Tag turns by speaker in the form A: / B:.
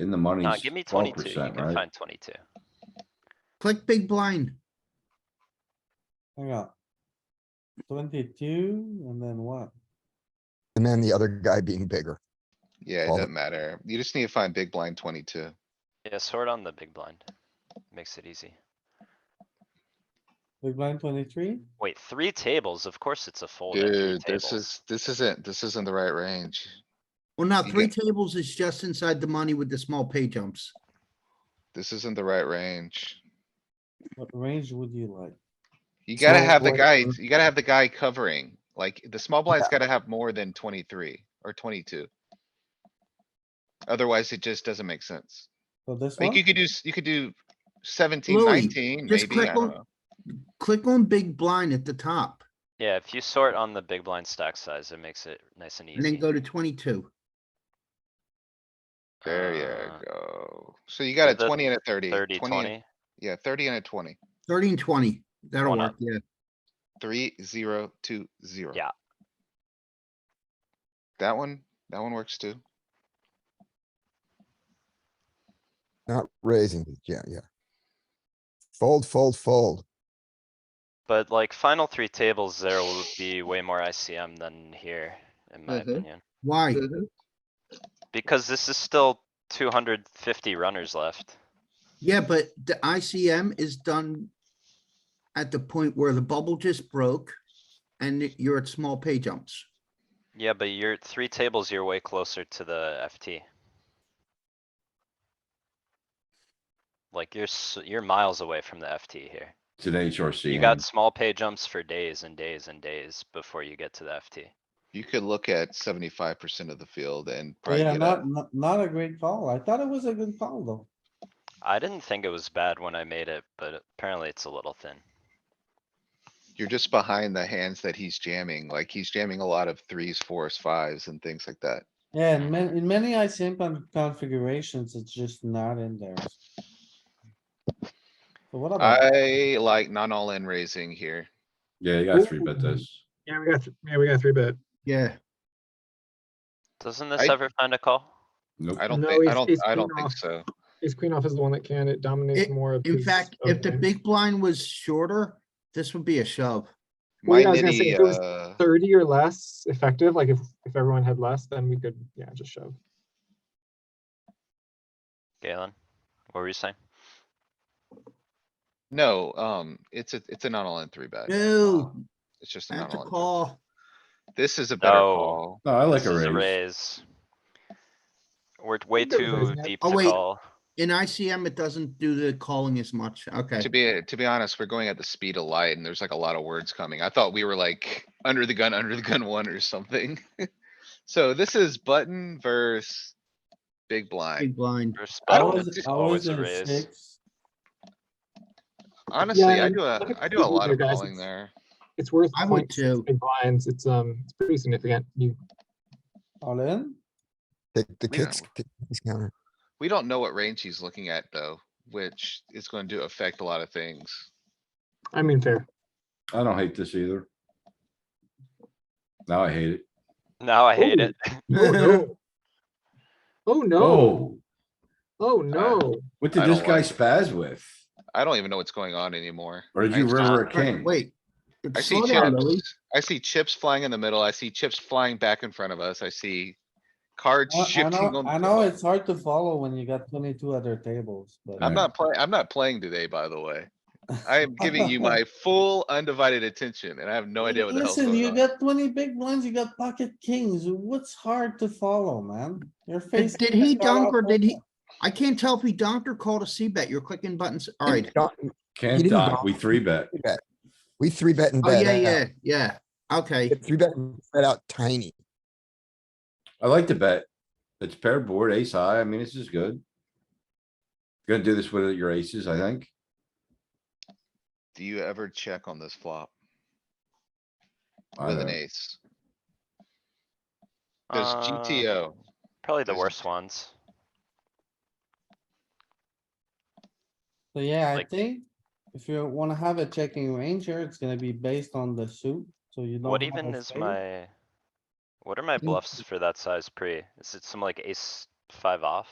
A: In the money.
B: Uh, give me
A: twelve
B: twenty-two, you
A: percent,
B: can
A: right?
B: find twenty-two.
C: Click big blind.
D: Hang on. Twenty-two and then what?
E: And then the other guy being bigger.
F: Yeah, it
E: Well-
F: doesn't matter. You just need to find big blind twenty-two.
B: Yeah, sort on the big blind. Makes it easy.
D: Big blind twenty-three?
B: Wait, three tables, of course it's a fold at three
F: Dude, this
B: tables.
F: is, this isn't, this isn't the right range.
C: Well, now
F: You
C: three
F: get-
C: tables is just inside the money with the small pay jumps.
F: This isn't the right range.
D: What range would you like?
F: You gotta
E: So
F: have the
E: what-
F: guy, you gotta have the guy covering, like, the small blind's gotta have more than twenty-three or twenty-two. Otherwise, it just doesn't make sense.
D: So this
F: Like,
D: one?
F: you could do, s- you could do seventeen,
C: Louis,
F: nineteen,
C: just
F: maybe, I
C: click
F: don't
C: on-
F: know.
C: Click on big blind at the top
B: Yeah, if you sort on the big blind stack size, it makes it nice and
C: and then
B: easy.
C: go to twenty-two.
F: There
B: Uh,
F: you go. So you got a
B: the
F: twenty and a thirty.
B: Thirty,
F: 20 and-
B: twenty,
F: Yeah, thirty and a twenty.
C: Thirty and twenty, that'll
B: One
C: work,
B: up.
C: yeah.
F: Three, zero, two, zero.
B: Yeah.
F: That one, that one works too.
E: Not raising, but yeah, yeah. Fold, fold, fold.
B: but like final three tables there will be way more ICM than here, in my
C: Mhm.
B: opinion.
C: Why?
G: Mm-hmm.
B: Because this is still two hundred fifty runners left.
C: Yeah, but the ICM is done at the point where the bubble just broke and you're at small pay jumps.
B: Yeah, but you're three tables, you're way closer to the FT. Like you're, s- you're miles away from the FT here.
A: It's an HRC.
B: You got small pay jumps for days and days and days before you get to the FT.
F: You could look at seventy-five percent of the field and
D: Oh,
F: probably
D: Yeah,
F: get a,
D: not, not, not a great call. I thought it was a good call though.
B: I didn't think it was bad when I made it, but apparently it's a little thin.
F: you're just behind the hands that he's jamming. Like he's jamming a lot of threes, fours, fives and things like that.
D: Yeah, in many, in many ICM con- configurations, it's just not in there. So what about,
F: I like not all in raising here.
A: Yeah, you got three bet this.
G: Yeah, we got, th- yeah, we got three bet.
C: Yeah,
B: Doesn't this
F: I-
B: ever find a call?
A: Nope.
F: I don't
G: No,
F: think, I
G: it's-
F: don't,
G: it's
F: I
G: been
F: don't think
G: off.
F: so.
G: Ace queen off is the one that can, it dominates
C: It-
G: more of.
C: in
G: his-
C: fact,
G: of
C: if the
G: hands.
C: big blind was shorter, this would be a shove.
G: Well,
F: My
G: yeah, I was gonna say,
F: nitty,
G: if it was
F: uh,
G: Thirty or less effective, like if, if everyone had less, then we could, yeah, just shove.
B: Galen, what were you saying?
F: no, um, it's a, it's a not all in three bet.
C: No,
F: Um, It's just a not
C: that's a
F: all in. three-
C: call.
F: This is a better
B: No.
F: call.
A: No, I like
B: This is
A: a raise.
B: We're t- way
G: think there was
B: too
G: that-
B: deep
C: Oh,
B: to
C: wait.
B: call.
C: In ICM, it doesn't do the calling as much. Okay.
F: To be, to be honest, we're going at the speed of light and there's like a lot of words coming. I thought we were like under the gun, under the gun one or something. So this is button versus big blind.
C: Big blind.
B: Versus
D: I
F: I
B: button,
F: don't-
D: was,
B: it's
D: I
B: always
D: was
B: a
D: in
B: raise.
D: six.
F: Honestly, I
G: and
F: do
G: look
F: a,
G: at
F: I
G: the
F: do a
G: people
F: lot
G: here,
F: of
G: guys.
F: calling there.
G: It's worth
C: I would
G: points,
C: too.
G: big blinds, it's, um, it's pretty significant, you,
D: All in?
E: Take the
F: Yeah.
E: kicks, kick- kicks counter.
F: We don't know what range he's looking at though, which is going to affect a lot of things.
G: I mean, fair.
A: I don't hate this either. Now I hate it.
B: Now I hate
G: Ooh.
B: it.
G: Oh, no. Oh, no,
A: Oh,
G: oh, no.
A: what did
F: I
A: this
F: don't
A: guy
F: like it.
A: spaz with?
F: I don't even know what's going on anymore.
A: Or did
F: I
A: you
F: just-
A: river a
C: Wait,
A: king?
C: Wait.
F: I see
C: Slow down, Louis.
F: chips, I see chips flying in the middle. I see chips flying back in front of us. I see cards
D: I- I
F: shifting
D: know,
F: on.
D: I know it's hard to follow when you got twenty-two other tables, but.
A: Alright.
F: I'm not playing, I'm not playing today, by the way. I am giving you my full undivided attention and I have no idea what the hell's
D: Listen, you
F: going on.
D: got twenty big blinds, you got pocket kings. What's hard to follow, man? Your face.
C: did he dunk or did he- I can't tell if he donked or called a C bet. You're clicking buttons. All right.
E: Don't-
A: Can't
E: didn't
A: dock,
E: dock.
A: we three bet.
E: three bet. We three bet and
C: Oh,
E: bet
C: yeah,
E: out.
C: yeah, yeah. Okay.
E: Three bet, and bet out tiny.
A: I like to bet. It's paired board, ace high. I mean, this is good. Gonna do this with your aces, I think.
F: Do you ever check on this flop
A: I
F: with an
A: don't-
F: ace? There's
B: Uh,
F: GTO.
B: Probably the
F: There's-
B: worst ones.
D: So yeah, I
B: Like-
D: think if you wanna have a checking range here, it's gonna be based on the suit, so you don't.
B: What
D: have a
B: even is
D: spade.
B: my? What are my
D: Mm.
B: bluffs for that size pre? Is it some like ace five off?